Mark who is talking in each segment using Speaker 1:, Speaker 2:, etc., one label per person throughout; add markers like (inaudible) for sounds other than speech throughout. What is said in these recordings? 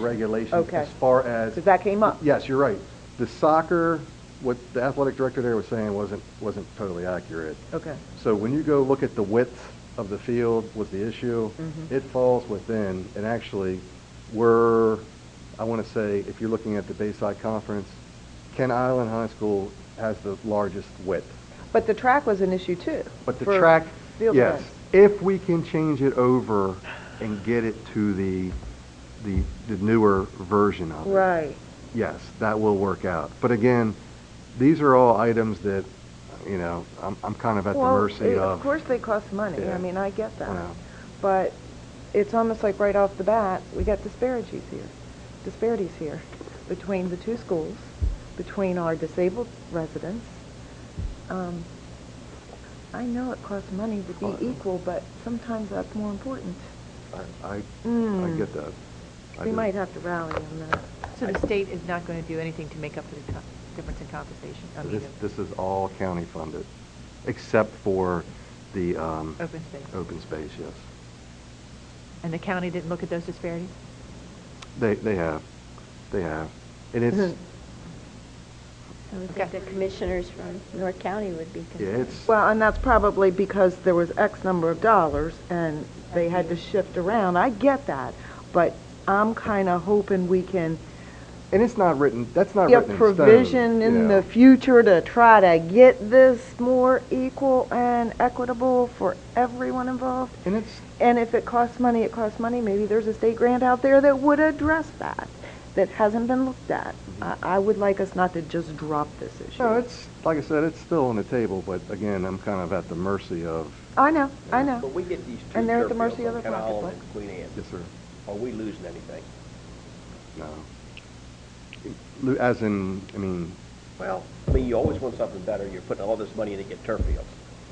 Speaker 1: regulations
Speaker 2: Okay.
Speaker 1: as far as,
Speaker 2: Because that came up.
Speaker 1: yes, you're right. The soccer, what the athletic director there was saying wasn't, wasn't totally accurate.
Speaker 2: Okay.
Speaker 1: So when you go look at the width of the field was the issue,
Speaker 2: Mm-hmm.
Speaker 1: it falls within, and actually, we're, I want to say, if you're looking at the Bayside Conference, Ken Island High School has the largest width.
Speaker 2: But the track was an issue too.
Speaker 1: But the
Speaker 2: for
Speaker 1: track,
Speaker 2: field
Speaker 1: yes,
Speaker 2: events.
Speaker 1: if we can change it over and get it to the, the, the newer version of it.
Speaker 2: Right.
Speaker 1: Yes, that will work out. But again, these are all items that, you know, I'm, I'm kind of at the
Speaker 2: Well,
Speaker 1: mercy
Speaker 2: it-
Speaker 1: of.
Speaker 2: course they cost money.
Speaker 1: Yeah.
Speaker 2: I mean, I get
Speaker 1: I
Speaker 2: that.
Speaker 1: know.
Speaker 2: But it's almost like right off the bat, we got disparities here, disparities here between the two schools, between our disabled residents. Um, I know it costs money to
Speaker 1: Oh, I
Speaker 2: be
Speaker 1: know.
Speaker 2: equal, but sometimes that's more important.
Speaker 1: I, I, I
Speaker 2: Mm.
Speaker 1: get that. I
Speaker 2: We
Speaker 1: do.
Speaker 2: might have to rally on that.
Speaker 3: So the state is not going to do anything to make up for the co- difference in compensation? I mean,
Speaker 1: This,
Speaker 3: of
Speaker 1: this is all county funded, except for the, um,
Speaker 3: Open space?
Speaker 1: open space, yes.
Speaker 3: And the county didn't look at those disparities?
Speaker 1: They, they have, they have. And it's,
Speaker 2: Mm-hmm.
Speaker 4: I would
Speaker 3: Okay.
Speaker 4: think the commissioners from North County would be
Speaker 1: yeah,
Speaker 4: concerned.
Speaker 1: it's,
Speaker 2: Well, and that's probably because there was X number of dollars and they had to shift around. I get that, but I'm kind of hoping we can
Speaker 1: and it's not written, that's not
Speaker 2: get
Speaker 1: written in stone.
Speaker 2: provision
Speaker 1: you
Speaker 2: in
Speaker 1: know.
Speaker 2: the future to try to get this more equal and equitable for everyone involved.
Speaker 1: And it's,
Speaker 2: And if it costs money, it costs money. Maybe there's a state grant out there that would address that, that hasn't been looked at. I, I would like us not to just drop this issue.
Speaker 1: no, it's, like I said, it's still on the table, but again, I'm kind of at the mercy of,
Speaker 2: I know, I know.
Speaker 5: But we get these two
Speaker 2: And they're at the
Speaker 5: turf
Speaker 2: mercy
Speaker 5: fields
Speaker 2: of
Speaker 5: on
Speaker 2: their
Speaker 5: Ken Island
Speaker 2: pocketbook.
Speaker 5: and Queen Anne.
Speaker 1: yes, sir,
Speaker 5: Are we losing anything?
Speaker 1: no. Lo- As in, I mean,
Speaker 5: Well, I mean, you always want something better, you're putting all this money in to get turf fields.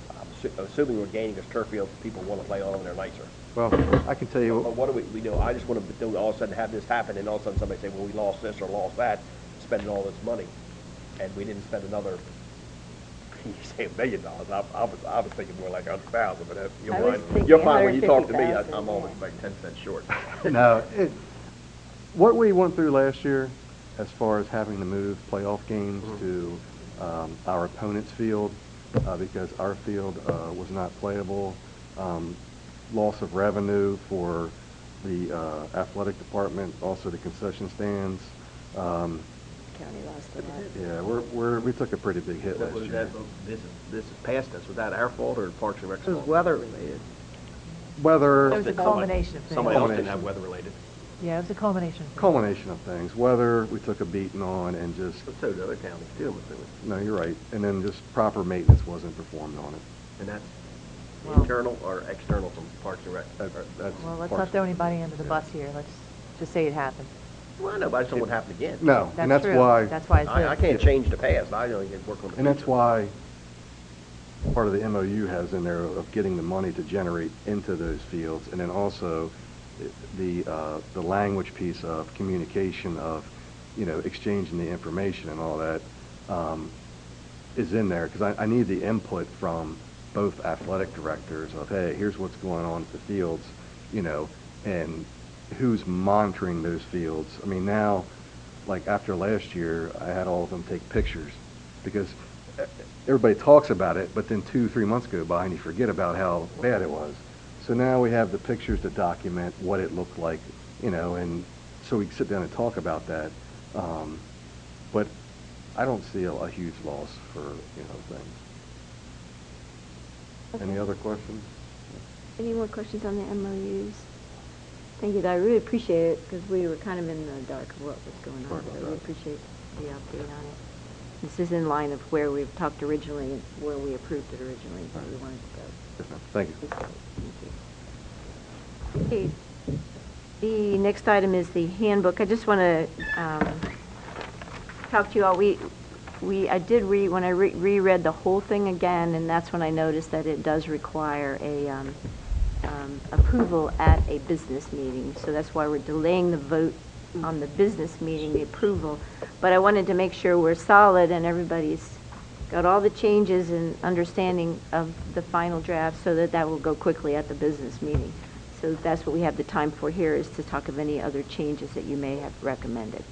Speaker 5: I'm assu- Assuming we're gaining this turf field, people want to play on them, they're nicer.
Speaker 1: well, I can tell
Speaker 5: But
Speaker 1: you, (laughs)
Speaker 5: what do we, we do, I just want to, all of a sudden have this happen, and all of a sudden somebody say, well, we lost this or lost that, spending all this money, and we didn't spend another, (laughs) you say a million dollars, I, I was, I was thinking more like a hundred thousand, but that- you're
Speaker 4: I was
Speaker 5: fine.
Speaker 4: thinking
Speaker 5: You're fine, when you talk to me, I-
Speaker 4: 150,000,
Speaker 5: I'm
Speaker 4: yeah.
Speaker 5: always like ten cents short.
Speaker 1: no, it, what we went through last year, as far as having to move playoff games to um, our opponent's field, uh, because our field uh, was not playable, um, loss of revenue for the uh, athletic department, also the concession stands. Um,
Speaker 4: County lost a lot.
Speaker 1: yeah, we're, we're, we took a pretty big hit last year.
Speaker 5: This is, this is past us, was that our fault or Parks and Rec's
Speaker 2: It was weather related.
Speaker 1: Weather.
Speaker 3: It was a culmination of things.
Speaker 5: Somebody else
Speaker 1: Culmination.
Speaker 5: didn't have weather-related.
Speaker 3: Yeah, it was a culmination of things.
Speaker 1: culmination of things. Weather, we took a beating on, and just,
Speaker 5: But so did other counties too, but it was,
Speaker 1: no, you're right. And then just proper maintenance wasn't performed on it.
Speaker 5: and that's
Speaker 3: Wow.
Speaker 5: internal or external from Parks and Rec?
Speaker 1: That-
Speaker 5: Or-
Speaker 1: that's
Speaker 3: Well, let's
Speaker 1: parts-
Speaker 3: not throw anybody under the bus here. Let's just say it happened.
Speaker 5: Well, I know, but I just don't want it to happen again.
Speaker 1: No, and that's
Speaker 3: true.
Speaker 1: why,
Speaker 3: That's why it's
Speaker 5: I, I
Speaker 3: there.
Speaker 5: can't change the past, I only can work on the future.
Speaker 1: and that's why part of the MOU has in there of getting the money to generate into those fields, and then also the, uh, the language piece of communication of, you know, exchanging the information and all that, um, is in there, because I, I need the input from both athletic directors of, hey, here's what's going on at the fields, you know, and who's monitoring those fields. I mean, now, like after last year, I had all of them take pictures because e- everybody talks about it, but then two, three months go by and you forget about how bad it was. So now we have the pictures to document what it looked like, you know, and so we can sit down and talk about that. Um, but I don't see a, a huge loss for, you know, things. Any other questions?
Speaker 4: Any more questions on the MOUs? Thank you, I really appreciate it, because we were kind of in the dark of what was going
Speaker 1: Sorry
Speaker 4: on,
Speaker 1: about
Speaker 4: so we
Speaker 1: that.
Speaker 4: appreciate the update on it. This is in line of where we've talked originally, and where we approved it originally, where we wanted to go.
Speaker 1: Yes, ma'am. Thank you.
Speaker 4: Okay. The next item is the handbook. I just um, want to talk to you all. We, we, I did read, when I re- reread the whole thing again, and that's when I noticed that it does require a um, um, approval at a business meeting. So that's why we're delaying the vote on the business meeting, the approval. But I wanted to make sure we're solid and everybody's got all the changes and understanding of the final draft so that that will go quickly at the business meeting. So that's what we have the time for here, is to talk of any other changes that you may have recommended.